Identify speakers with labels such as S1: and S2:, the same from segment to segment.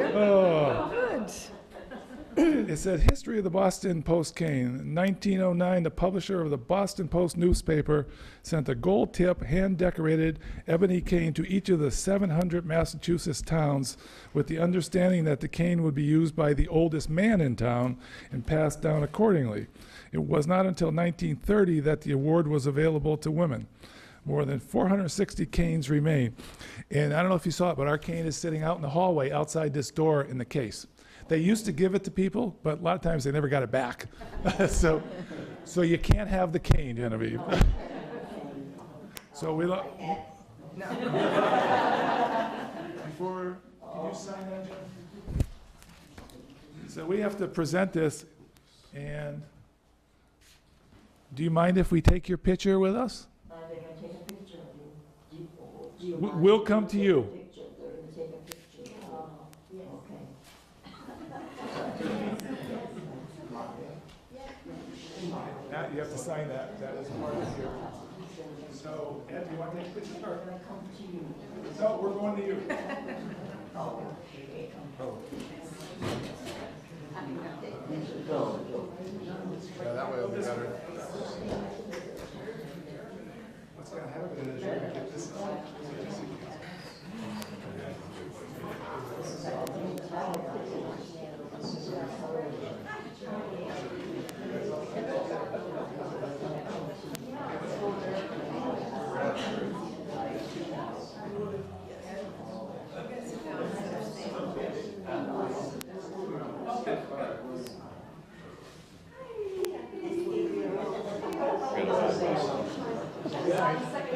S1: Oh.
S2: Good.
S1: It said, "History of the Boston Post cane. 1909, the publisher of the Boston Post newspaper sent a gold tip, hand-decorated ebony cane to each of the 700 Massachusetts towns with the understanding that the cane would be used by the oldest man in town and passed down accordingly. It was not until 1930 that the award was available to women. More than 460 canes remain. And I don't know if you saw it, but our cane is sitting out in the hallway outside this door in the case. They used to give it to people, but a lot of times they never got it back. so, so you can't have the cane, Genevieve. so we. Lo- Before, can you sign that? Jeff? So we have to present this, and do you mind if we take your picture with us?
S3: Are Uh, they gonna take a picture of you? Do you, do you
S1: W-
S3: mind
S1: We'll
S3: if
S1: come
S3: they
S1: to
S3: take a
S1: you.
S3: Picture, they're gonna take a picture. Oh, okay.
S1: Matt, you have to sign that, that is part of your. So, Ed, do you want to take a picture? Sure. No, we're going to you.
S4: Yeah, that way it'll be better.
S1: What's gonna happen is you're gonna get this.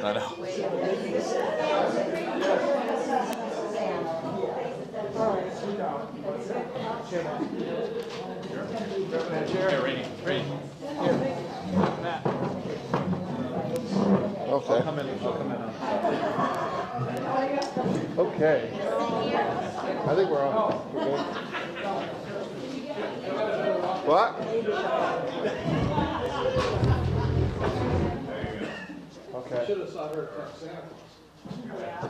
S5: I know. Here, Rainey, Rainey.
S4: Okay.
S5: Come in, I'll come in on.
S4: Okay. I think we're on. We're good. What? Okay.
S6: Should have saw her at Santa Claus.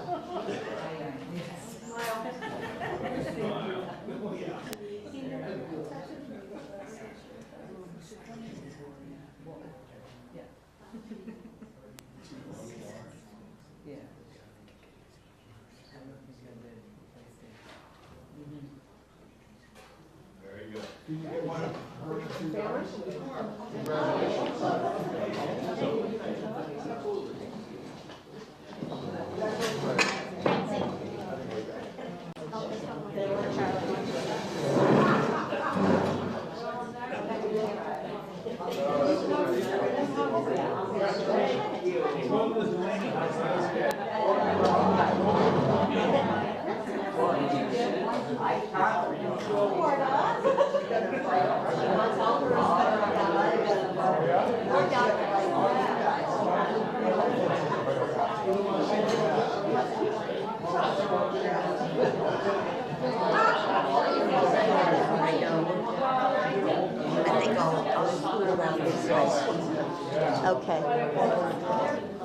S3: I know. I think I'll, I'll scoot around this way. Okay.